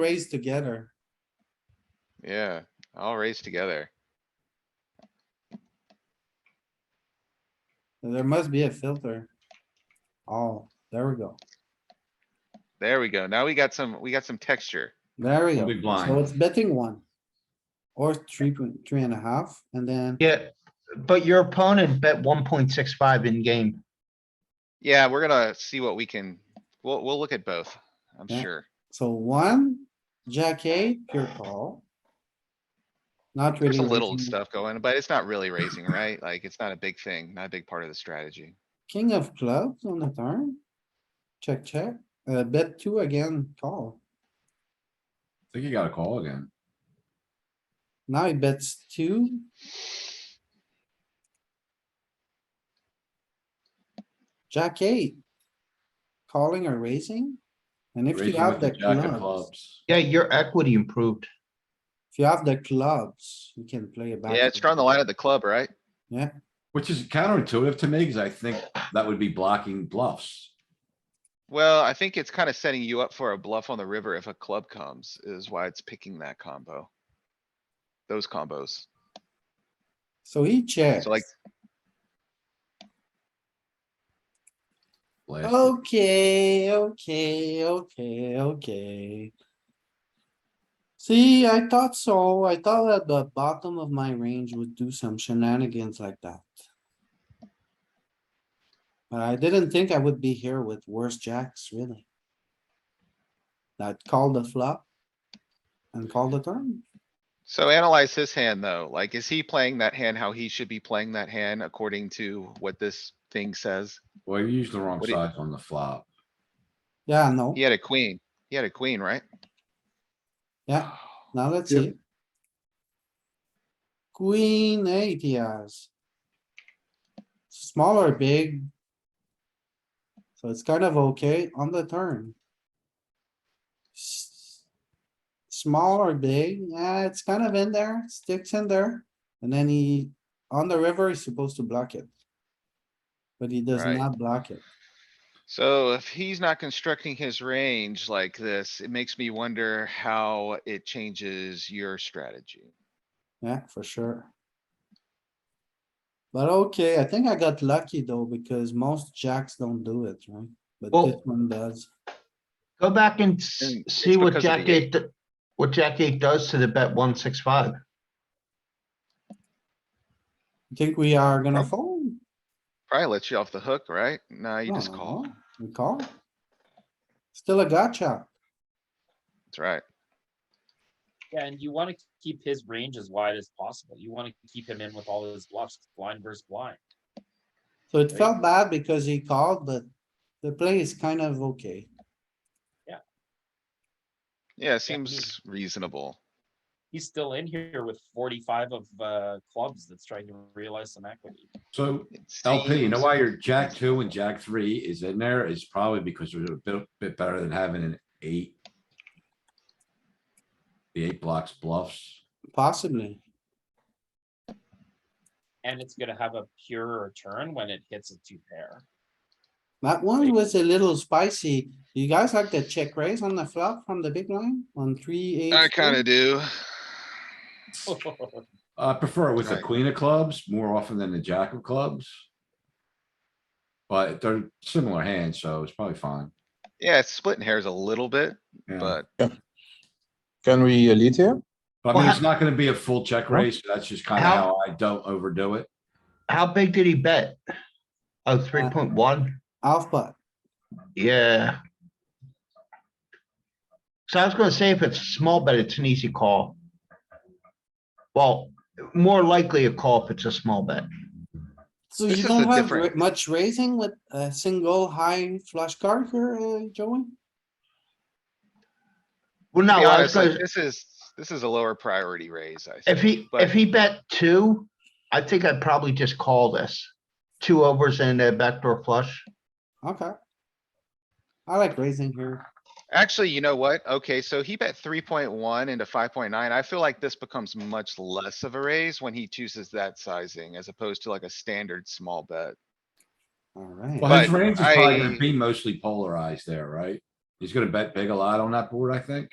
raise together. Yeah, all raised together. There must be a filter. Oh, there we go. There we go. Now we got some, we got some texture. There we go. Big So blind. it's betting one. Or three point, three and a half, and then Yeah, but your opponent bet one point six five in game. Yeah, we're gonna see what we can, we'll, we'll look at both, I'm Yeah. sure. So one, jack eight, pure call. Not really. There's a little raising. stuff going, but it's not really raising, right? Like, it's not a big thing, not a big part of the strategy. King of clubs on the turn. Check, check. Uh, bet two again, call. think you gotta call again. Now he bets two. Jack eight. Calling or raising? And if you Raising have with the the jack of clubs, clubs. Yeah, your equity improved. if you have the clubs, you can play it back. Yeah, it's drawing the line at the club, right? Which is counterintuitive to me, cause I think that would be blocking bluffs. Well, I think it's kinda setting you up for a bluff on the river if a club comes, is why it's picking that combo. Those combos. So he checks. like- Blast. Oh. Okay, okay, okay, okay. See, I thought so. I thought that the bottom of my range would do some shenanigans like that. But I didn't think I would be here with worse jacks, really. That called the flop. And called the turn. So analyze his hand though, like, is he playing that hand how he should be playing that hand according to what this thing says? Well, you used the wrong What do you- size on the flop. Yeah, no, He had a queen, he had a queen, right? yeah. Now let's Yep. see. Queen eight, he has. Small or big? So it's kind of okay on the turn. S- Small or big, yeah, it's kind of in there, sticks in there, and then he, on the river, he's supposed to block it. But he does Right. not block it. So if he's not constructing his range like this, it makes me wonder how it changes your strategy. Yeah, for sure. But okay, I think I got lucky though, because most jacks don't do it, right? But Well- this one does. Go back and s- And it's see what because of the jack eight, do- what jack eight does to the bet one six five. You Think we are gonna Prob- fold? Probably lets you off the hook, right? Nah, you just No, call. We call. Still a gotcha. That's right. Yeah, and you want to keep his range as wide as possible. You want to keep him in with all his bluffs, blind versus blind. So it Right. felt bad because he called, but the play is kind of okay. Yeah, it Yeah, I mean- seems reasonable. He's still in here with forty-five of uh clubs that's trying to realize some equity. So It LP, you know seems- why your jack two and jack three is in there is probably because they're a bit, bit better than having an eight. The eight blocks bluffs. Possibly. And it's gonna have a purer turn when it hits a two pair. That one Right. was a little spicy. You guys like the check raise on the flop from the big line on three eight? I kinda do. I prefer it with the Right. queen of clubs more often than the jack of clubs. But they're similar hands, so it's probably fine. Yeah, it's splitting hairs a little bit, Yeah. but Can we uh, lead here? But I mean, it's not gonna be a full check Huh? raise. so That's just kind of How- how I don't overdo it. How big did he bet? Oh, three Uh, point one? Half pot. Yeah. So I was gonna say if it's a small bet, it's an easy call. Well, more likely a call if it's a small bet. So This you is don't the have difference. ra- much raising with a single high flush card here, uh, Joey? to Well, no, be I honest, was like, gonna, this is, this is a lower priority raise, I if think. he, but- if he bet two, I think I'd probably just call this. Two overs and a backdoor flush. Okay. I like raising here. Actually, you know what? Okay, so he bet three point one into five point nine. I feel like this becomes much less of a raise when he chooses that sizing as opposed to like a standard small bet. Alright, Well, his But range is probably gonna I- be mostly polarized there, right? He's gonna bet big a lot on that board, I think.